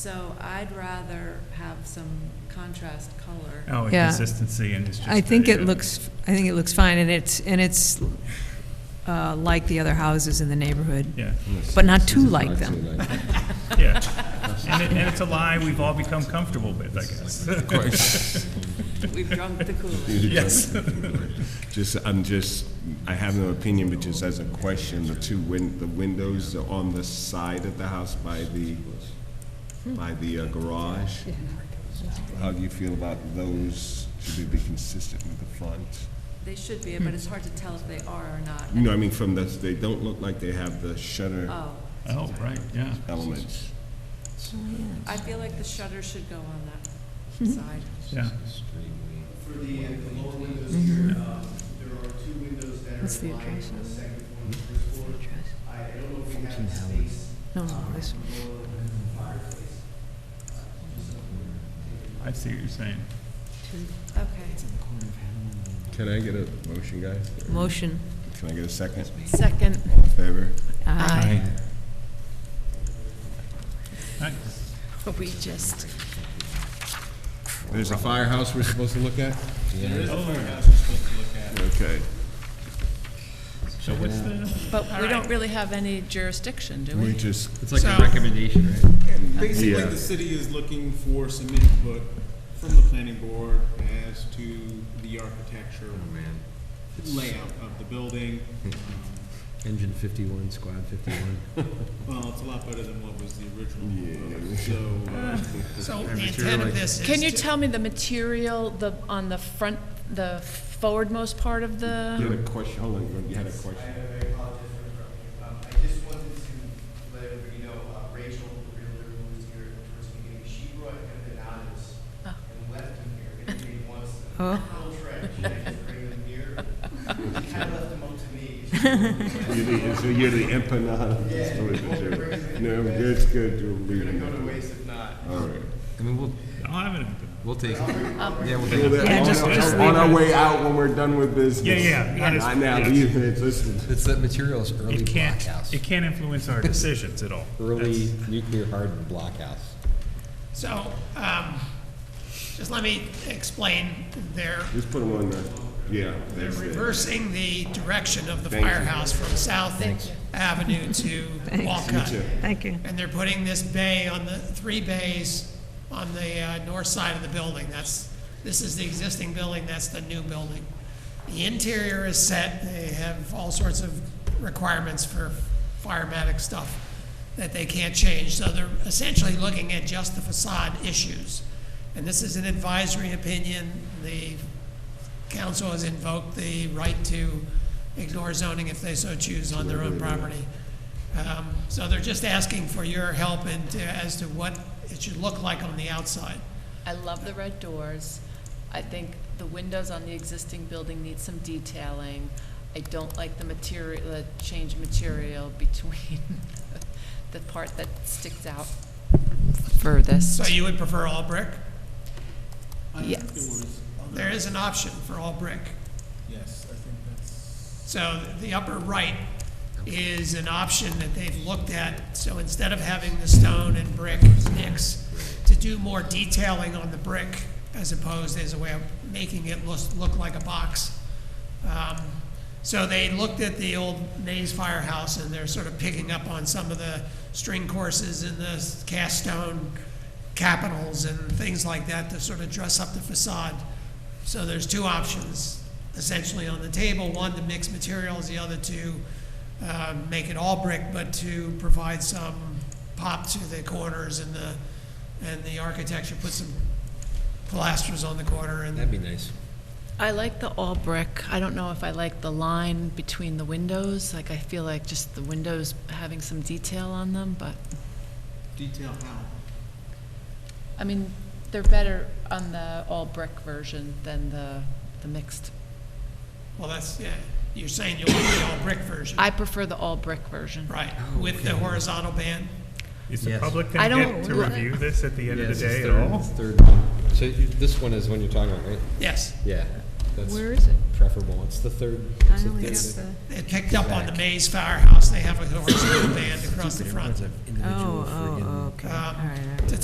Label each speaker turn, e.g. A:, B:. A: So I'd rather have some contrast color.
B: Oh,
C: Yeah.
B: consistency and it's just. uh,
C: I think
B: the-
C: it looks, I think it looks fine, and it's, and it's uh, like the other houses in the neighborhood.
B: Yeah,
C: But not
D: This
C: too
D: is
C: like
D: not
C: them.
D: too like them.
B: yeah. And it, and it's a lie we've all become comfortable with, I guess.
A: We've drunk the Kool-Aid.
B: Yes.
D: Just, I'm just, I have no opinion, but just as a question, the two win, the windows are on the side of the house by the, by the uh, garage. How do you feel about those? Should they be consistent with the front?
A: They should be, but it's hard to tell if they are or not.
D: You know, I mean, from the, they don't look like they have the shutter
A: Oh,
B: Oh, right, yeah.
D: elements.
A: I feel like the shutter should go on that side.
B: Yeah.
E: For the, uh, the lower windows here, um, there are two windows that are
C: the
E: lined
C: address
E: on the second floor and the first floor. I I don't know if we have the space
C: No, no, this one.
E: for the fireplace.
B: I see what you're saying.
A: Okay.
D: Can I get a motion, guys?
C: Motion.
D: Can I get a second?
A: Second.
D: All in favor?
C: Aye.
B: Aye.
A: We just.
D: There's a firehouse we're supposed to look at? Okay.
B: So what's the,
F: But we don't really have any jurisdiction, do
D: We
F: we?
D: just,
G: It's like
H: So-
G: a recommendation, right?
H: Basically,
D: Yeah.
H: the city is looking for some input from the planning board as to the architecture layout of the building.
G: Engine 51, Squad 51.
H: Well, it's a lot better than what was the original, so, uh,
G: So
H: Every
G: intent of this
F: Can you tell me the material, the, on the front, the forwardmost part of
D: you
F: the?
D: had a question, hold on, you had a question?
E: I I apologize for interrupting. Um, I just wanted to let everybody know, uh, Rachel, the realtor who was here towards the beginning, she brought him bananas
F: Oh.
E: and left him here. And he wants
C: Oh.
E: them. Little trash, I just bring them here. She kind of left them up to me. She's
D: You're the, so you're the empanada. uh, No, that's good, you're
E: gonna go to
D: leaving.
E: waste if not.
D: All right.
G: I mean, we'll,
B: I'll have it.
G: we'll take it. Yeah, we'll
D: Well,
G: take it.
D: then,
C: Yeah,
D: on
C: just-
D: our-
C: just
D: On our
B: leave it.
D: way out when we're done with business.
B: Yeah, yeah, yeah.
D: Not now,
B: Yeah.
D: leave it, listen.
G: It's that material's early
B: It can't,
G: blockhouse.
B: it can't influence our decisions at all.
G: Early nuclear hardened blockhouse.
I: So, um, just let me explain. They're
D: Just put them on the, yeah, that's it.
I: reversing the direction of the
D: Thank you.
I: firehouse from South Avenue to Walcott.
C: Thank you.
I: And they're putting this bay on the, three bays on the uh, north side of the building. That's, this is the existing building, that's the new building. The interior is set, they have all sorts of requirements for firematic stuff that they can't change. So they're essentially looking at just the facade issues. And this is an advisory opinion. The council has invoked the right to ignore zoning if they so choose on their own property. Um, So they're just asking for your help in, to- as to what it should look like on the outside.
F: I love the red doors. I think the windows on the existing building need some detailing. I don't like the material, the change material between the part that sticks out
I: So
F: furthest.
I: you would prefer all brick?
H: I think there
F: Yes.
H: was other-
I: There is an option for all brick.
H: Yes, I think that's,
I: So the upper right is an option that they've looked at. So instead of having the stone and brick mix, to do more detailing on the brick as opposed as a way of making it look, look like a box. Um, So they looked at the old Mays Firehouse and they're sort of picking up on some of the string courses and the cast stone capitals and things like that to sort of dress up the facade. So there's two options essentially on the table, one to mix materials, the other to uh, make it all brick, but to provide some pop to the corners and the, and the architecture, put some pilasters on the corner and
G: That'd be nice.
F: I like the all brick. I don't know if I like the line between the windows. Like, I feel like just the windows having some detail on them, but,
H: detail how.
F: I mean, they're better on the all brick version than the, the mixed.
I: Well, that's, yeah, you're saying you'll do the all brick version,
F: I prefer the all brick version.
I: right, with the horizontal band?
B: Is the
G: Yes.
B: public
F: I
B: going to
F: don't-
B: get to review this at the end of the
G: Yes,
B: day at
G: it's third-
B: all?
G: it's Third one. So you- this one is when you're talking about, right?
I: Yes.
G: Yeah. That's
C: Where is it?
G: preferable. It's the third. it's the third-
I: It picked up on the Mays Firehouse, they have a horizontal band across the front.
C: Oh, oh, okay, all right. all
I: Um,
C: right.
I: to